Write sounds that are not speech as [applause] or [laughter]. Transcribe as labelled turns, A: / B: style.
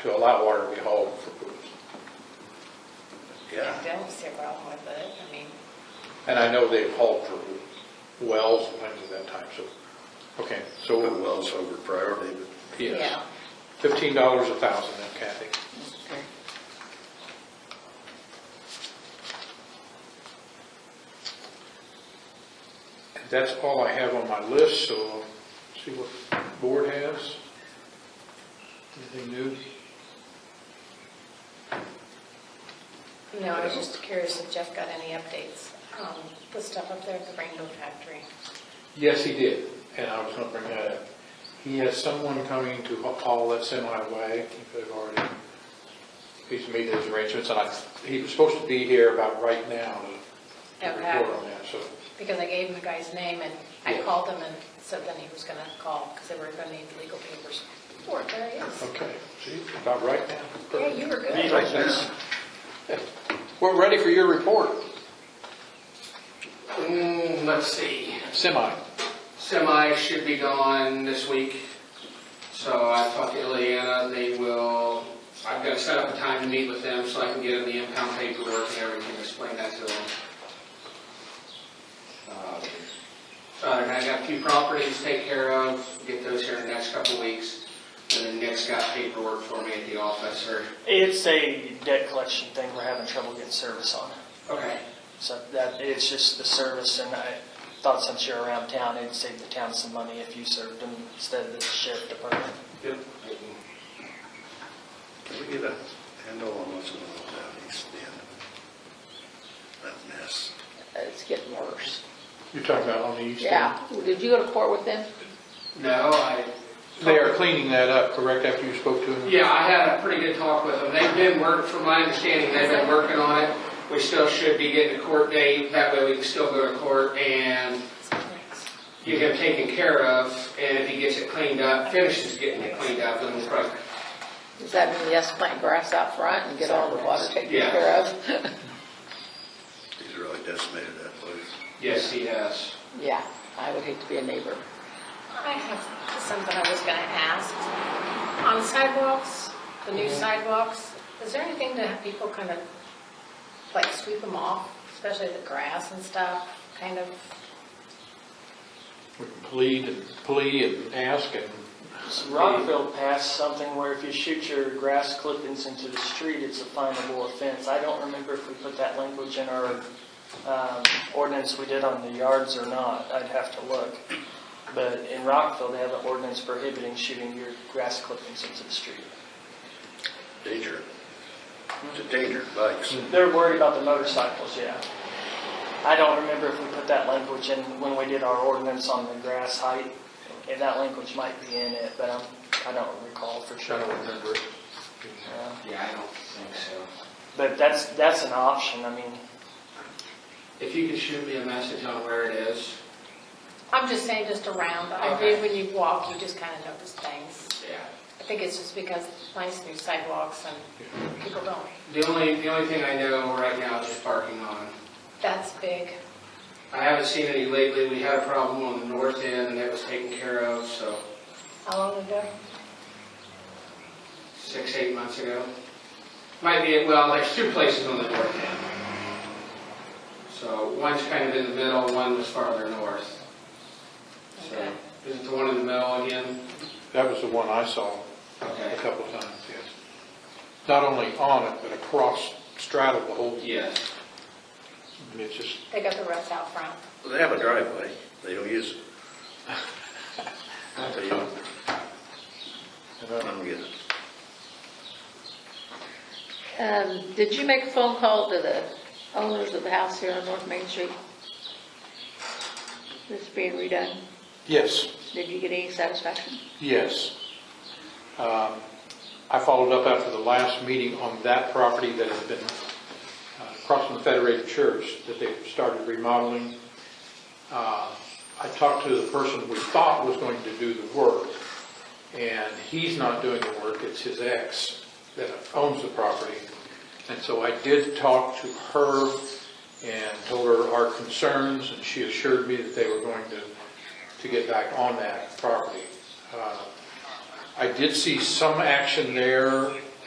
A: to allow water to be hauled for booze.
B: I
A: Yeah,
B: don't see a problem with it, I mean,
A: and I know they've hauled for wells and things of that type, so, okay,
C: Put
A: so,
C: wells over priority, but
A: yes.
B: yeah.
A: Fifteen dollars a thousand then Kathy. And That's all I have on my list, so I'll see what the board has. Anything new?
B: No, I was just curious if Jeff got any updates, um, the stuff up there at the Rainbow Factory.
A: Yes, he did, and I was gonna bring that up. He has someone coming to ha- haul that semi away, if they've already, he's made those arrangements, and I, he was supposed to be here about right now to to
B: Okay.
A: report on that, so.
B: Because I gave him the guy's name and I
A: Yeah.
B: called him and said then he was gonna call, because they were gonna need legal papers. Or there he is.
A: Okay, see, about right now.
B: Yeah, you were good.
C: right now,
A: We're ready for your report,
D: Mm, Let's see,
A: semi.
D: semi should be gone this week, so I talked to Ileana, they will, I've got to set up a time to meet with them so I can get them the impound paperwork and everything, explain that to them. Um, So I got a few properties to take care of, get those here in the next couple of weeks, and then Nick's got paperwork for me at the office, or,
E: It's a debt collection thing, we're having trouble getting service on.
D: okay,
E: So that, it's just the service, and I thought since you're around town, it'd save the town some money if you served them instead of the sheriff department.
D: yep,
C: can we get a handle on what's going on with that east end? That mess.
F: It's getting worse.
A: You're talking about on the east end?
F: Yeah. Did you go to court with them?
D: no, I.
A: They are cleaning that up, correct, after you spoke to them?
D: Yeah, I had a pretty good talk with them. They've been work, from my understanding, they've been working on it. We still should be getting a court date, that way we can still go to court and get him taken care of. And if he gets it cleaned up, finishes getting it cleaned up, then we'll probably,
F: Does that mean yes, plant grass out front and get all the water taken
D: Yeah.
F: care of? [laughs]
C: He's really decimated that place.
D: yes, he has.
F: Yeah, I would hate to be a neighbor.
B: I have something I was gonna ask. On sidewalks, the new sidewalks, is there anything to have people kind of, like sweep them off, especially the grass and stuff, kind of?
A: We can plead and plea and ask and,
E: Rockville passed something where if you shoot your grass clippings into the street, it's a finable offense. I don't remember if we put that language in our um, ordinance we did on the yards or not, I'd have to look. But in Rockville, they have an ordinance prohibiting shooting your grass clippings into the street.
C: Danger. It's a danger, bikes.
E: They're worried about the motorcycles, yeah. I don't remember if we put that language in when we did our ordinance on the grass height, and that language might be in it, but I'm, I don't recall for
A: I
E: sure.
A: don't remember it.
E: Yeah.
D: Yeah, I don't think so.
E: But that's, that's an option, I mean,
D: If you could shoot me a message on where it is.
B: I'm just saying just around, but I
D: Okay.
B: think when you walk, you just kind of notice things.
D: Yeah.
B: I think it's just because it's nice new sidewalks and people don't.
D: The only, the only thing I know right now is just parking on.
B: That's big.
D: I haven't seen any lately. We had a problem on the north end and it was taken care of, so
B: How long ago?
D: six, eight months ago. Might be, well, there's two places on the north end. So one's kind of in the middle, one was farther north. So,
B: Okay.
D: is it the one in the middle again?
A: That was the one I saw a
D: Okay.
A: couple of times, yes. Not only on it, but across, straddled the whole,
D: Yes.
A: and it's just,
B: They got the rest out front.
C: They have a driveway, they don't use it. They don't,
A: you
C: I
A: know,
C: don't get it.
F: Um, did you make a phone call to the owners of the house here on North Main Street? That's being redone.
A: yes,
F: Did you get any satisfaction?
A: yes. Um, I followed up after the last meeting on that property that had been uh, across from the Federated Church, that they started remodeling. Uh, I talked to the person we thought was going to do the work, and he's not doing the work, it's his ex that owns the property. And so I did talk to her and told her our concerns, and she assured me that they were going to, to get back on that property. Uh, I did see some action there